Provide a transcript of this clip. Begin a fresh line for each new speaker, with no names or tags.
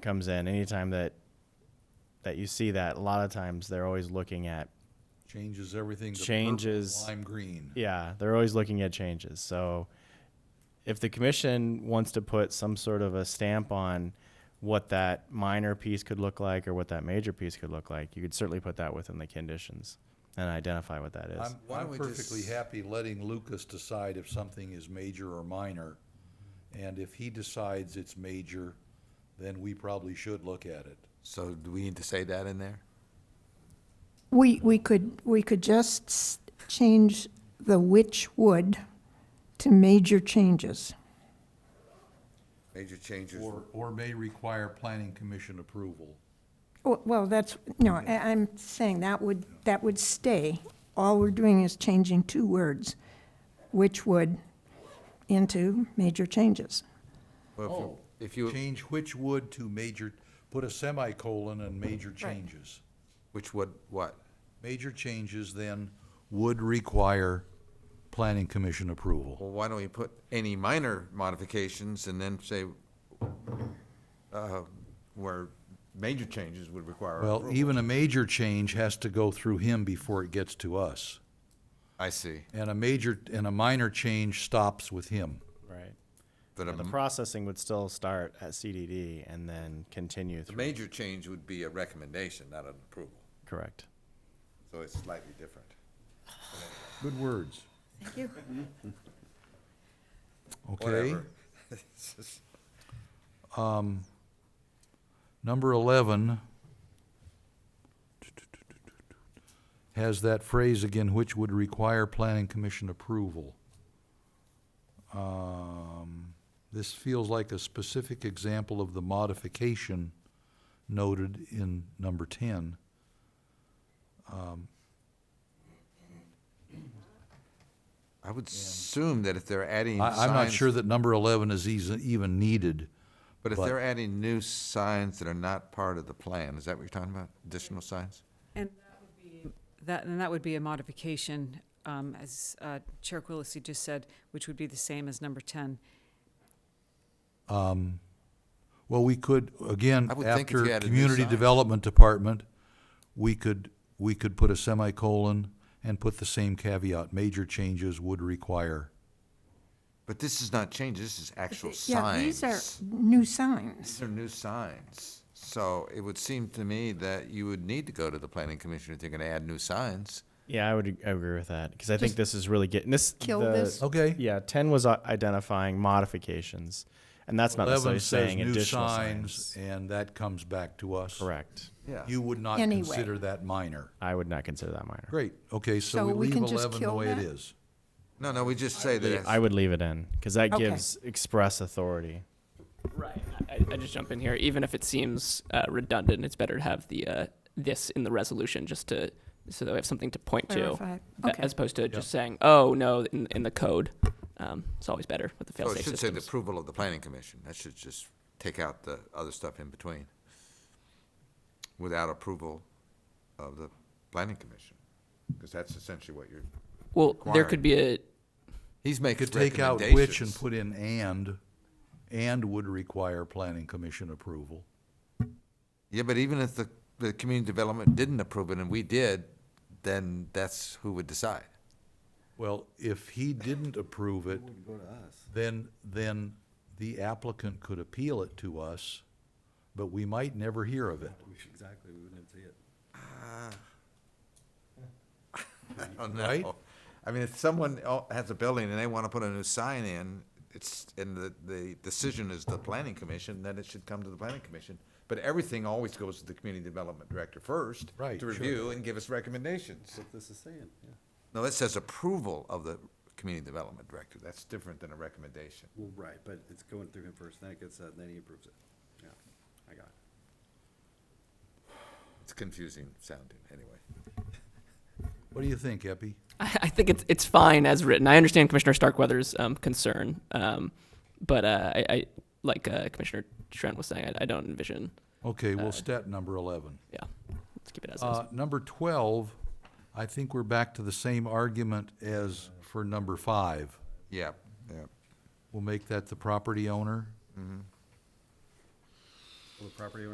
comes in, anytime that that you see that, a lot of times they're always looking at
Changes everything. to purple,
Changes-
Lime green.
yeah, they're always looking at changes. So if the commission wants to put some sort of a stamp on what that minor piece could look like or what that major piece could look like, you could certainly put that within the conditions and identify what that is.
I'm,
Why
I'm
don't we just-
perfectly happy letting Lucas decide if something is major or minor. And if he decides it's major, then we probably should look at it.
So do we need to say that in there?
We, we could, we could just s- change the which would to major changes.
Major changes.
Or, or may require planning commission approval.
Well- Well, that's, no, I- I'm saying that would, that would stay. All we're doing is changing two words, which would into major changes.
Well, Oh, If you, if you-
oh, Change which would to major, put a semicolon and major changes.
which would, what?
Major changes then would require planning commission approval.
Well, why don't we put any minor modifications and then say, uh, where major changes would require
Well,
approval?
even a major change has to go through him before it gets to us. e-
I see,
And a major, and a minor change stops with him.
right.
but
The
a
processing would still start at CDD and then continue
the
through.
major change would be a recommendation, not an approval,
Correct.
so it's slightly different.
Good words. Thank you. Okay,
Whatever. It's just-
number eleven has that phrase again, which would require planning commission approval. Um, this feels like a specific example of the modification noted in number ten.
I would assume that if they're adding signs.
I, I'm not sure that number eleven is eas- even needed.
But if
but-
they're adding new signs that are not part of the plan, is that what you're talking about? Additional signs?
And that would be- that, and that would be a modification, um, as uh, Chair Quillisi just said, which would be the same as number 10.
Well, we could, again,
I would think if you
after
had a new
Community
sign.
Development Department, we could, we could put a semicolon and put the same caveat, major changes would require.
But this is not changes, this is actual
Yeah,
signs.
these are new signs.
These are new signs. So it would seem to me that you would need to go to the planning commission if they're gonna add new signs.
Yeah, I would ag- agree with that because I think this is really getting this.
kill
the-
this.
Okay.
Yeah, ten was i- identifying modifications, and that's not necessarily
Eleven says
saying
new
additional
signs, and that comes back to us.
Correct.
Yeah.
You would not
Anyway.
consider that minor.
I would not consider that minor.
Great, okay, so
So
we
we
leave
can just
eleven the
kill
way it
that?
is.
No, no, we just say that.
I
it's-
would leave it in because that
Okay.
gives express authority.
Right. I, I just jump in here. Even if it seems uh, redundant, it's better to have the uh, this in the resolution just to so that we have something to point
Clarify.
to, a-
Okay.
as opposed to just saying, "Oh no," in, in the code. Um, it's always better with the
So
fail-safe
it should say the
systems.
approval of the planning commission. That should just take out the other stuff in between. Without approval of the planning commission, because that's essentially what you're,
well, there
required.
could be a
he's
You
making
Could take out which and
recommendations.
put in and, and would require planning commission approval.
Yeah, but even if the, the community development didn't approve it and we did, then that's who would decide.
Well, if he didn't approve it, then, then the applicant could appeal it to us, but we might never hear of it.
I don't
Right?
know. I mean, if someone el- has a building and they want to put a new sign in, it's, and the, the decision is the planning commission, then it should come to the planning commission. But everything always goes to the community development director first.
Right,
To
sure.
review and give us recommendations. What this is saying, yeah. No, that says approval of the community development director. That's different than a recommendation.
Well, right, but it's going through him first, then it gets, uh, then he approves it. Yeah, I got it.
It's confusing sounding, anyway.
What do you think, Epi?
I, I think it's it's fine as written. I understand Commissioner Starkweather's um, concern, um, but uh, I, I like uh, Commissioner Trent was saying, I, I don't envision.
Okay, well, stat number eleven.
Yeah, let's keep it as
Uh,
is.
number twelve, I think we're back to the same argument as for number five.
Yeah, yeah.
We'll make that the property owner.
Will the property owner